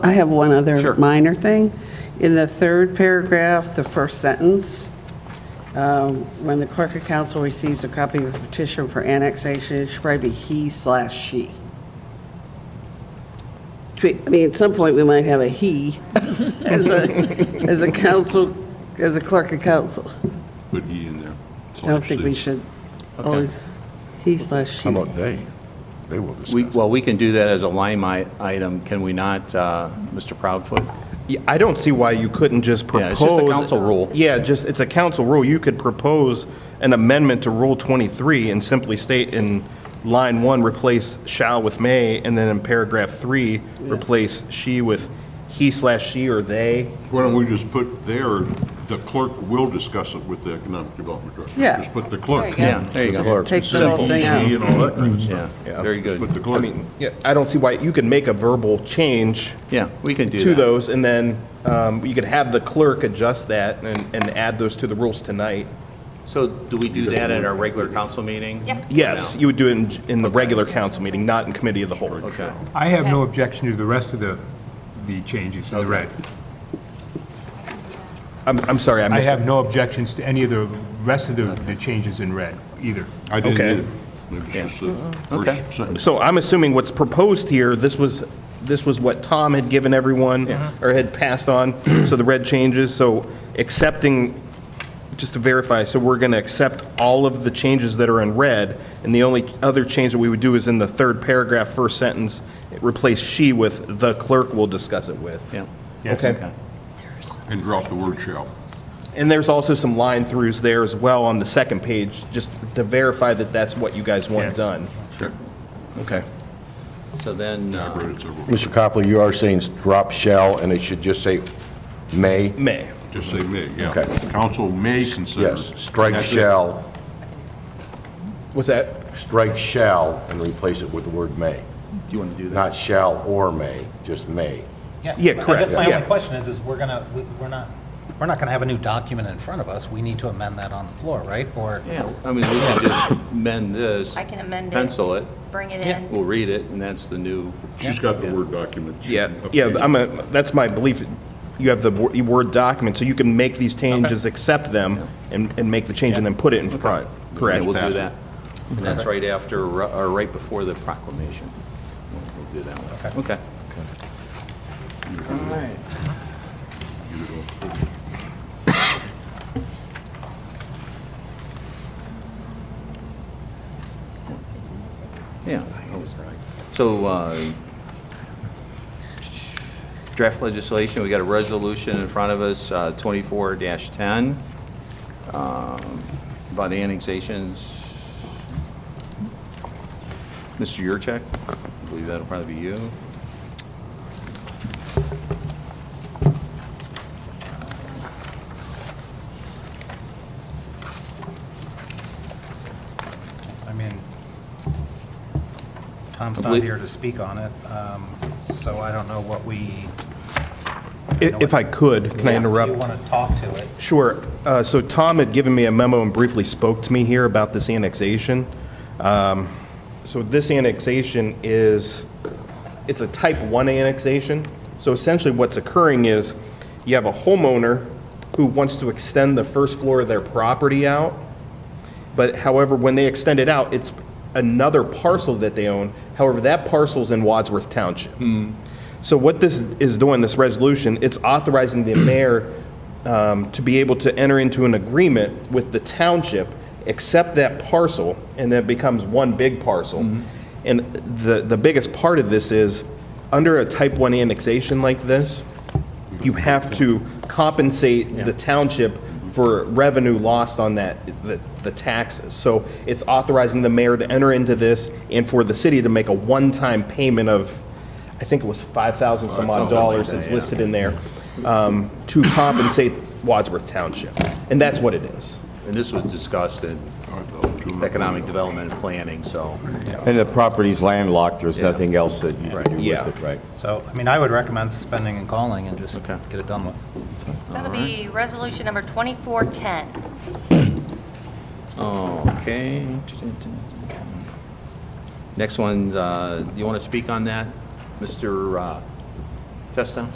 I have one Sure. other minor thing. In the third paragraph, the first sentence, um, when the clerk of council receives a copy of the petition for annexation, it should probably be he slash she. Twe- I mean, at some point, we might have a he as a, as a council, as a clerk of council. put E in there. I don't think we should always, he slash she. How about they? They will We, discuss. well, we can do that as a line i- item, can we not, uh, Mr. Proudfoot? Yeah, I don't see why you couldn't just propose. Yeah, it's just a council rule. Yeah, just, it's a council rule. You could propose an amendment to Rule 23 and simply state in line one, replace shall with may, and then in paragraph three, replace she with he slash she or they. Why don't we just put there, the clerk will discuss it with the economic development director. Yeah. Just put the clerk. Yeah, there you go. Just take the whole thing out. And all that kind of Yeah, stuff. very Put the good. I clerk. mean, yeah, I don't see why, you can make a verbal change Yeah, we can do that. to those, and then um, you could have the clerk adjust that and, and add those to the rules tonight. So do we do that at our regular council meeting? Yep. Yes, you would do it in, in the regular council meeting, not in committee of the whole. Okay. I have no objection to the rest of the, the changes in the red. I'm, I'm sorry, I I missed have that. no objections to any of the rest of the, the changes in red either. I didn't Okay. either. It was just the Okay. first sentence. So I'm assuming what's proposed here, this was, this was what Tom had given everyone, or had passed on, so the red changes, so accepting, just to verify, so we're going to accept all of the changes that are in red, and the only other change that we would do is in the third paragraph, first sentence, replace she with the clerk will discuss it with. Yeah. Yes. Okay. And drop the word shall. And there's also some line throughs there as well on the second page, just to verify that that's what you guys want Yes. done. Sure. Okay. So then, I uh, read it several, Mr. Copley, you are saying drop shall, and it should just say may? May. just say may, yeah. Okay. Council may consider. Yes, strike That's it. shall, What's that? strike shall, and replace it with the word may. do you want to do that? Not shall or may, just may. Yeah, I guess correct, my yeah. only question is, is we're gonna, we- we're not, we're not gonna have a new document in front of us. We need to amend that on the floor, right? Or, Yeah, I mean, we can just amend this. I can amend it. Pencil it, Bring it Yeah. in. we'll read it, and that's the new. She's got the word document. She Yeah, can yeah, update it. I'm a, that's my belief. You have the wor- Word document, so you can make these changes, accept them, and, and make the change, and then put it in front. Correct. Yeah, We'll do that. And that's right after, or right before the proclamation. We'll we'll do that one. Okay. Yeah, that was right. So, uh, draft legislation, we got a resolution in front of us, uh, 24-10, um, by the annexations. Mr. Yurcheck, I believe that'll probably be you. I mean, Tom's I not believe- here to speak on it, um, so I don't know what we. I- If I could, can I interrupt? You wanna talk to it. Sure. Uh, So Tom had given me a memo and briefly spoke to me here about this annexation. Um, So this annexation is, it's a type 1 annexation. So essentially what's occurring is you have a homeowner who wants to extend the first floor of their property out. But however, when they extend it out, it's another parcel that they own. However, that parcel's in Wadsworth Township. So what this is doing, this resolution, it's authorizing the mayor um, to be able to enter into an agreement with the township, accept that parcel, and then it becomes one big parcel. And the, the biggest part of this is, under a type 1 annexation like this, you have to compensate the township for revenue lost on that, the the taxes. So it's authorizing the mayor to enter into this and for the city to make a one-time payment of, I think it was 5,000 some odd dollars that's listed in there, um, to compensate Wadsworth Township. And that's what it is. And this was discussed in economic development and planning, so. And the property's landlocked, there's nothing else that you can do Yeah. with it, right? So, I mean, I would recommend suspending and calling and just Okay. get it done with. That'll be resolution number 2410. Okay. Next one, uh, you want to speak on that, Mr. uh, Testa?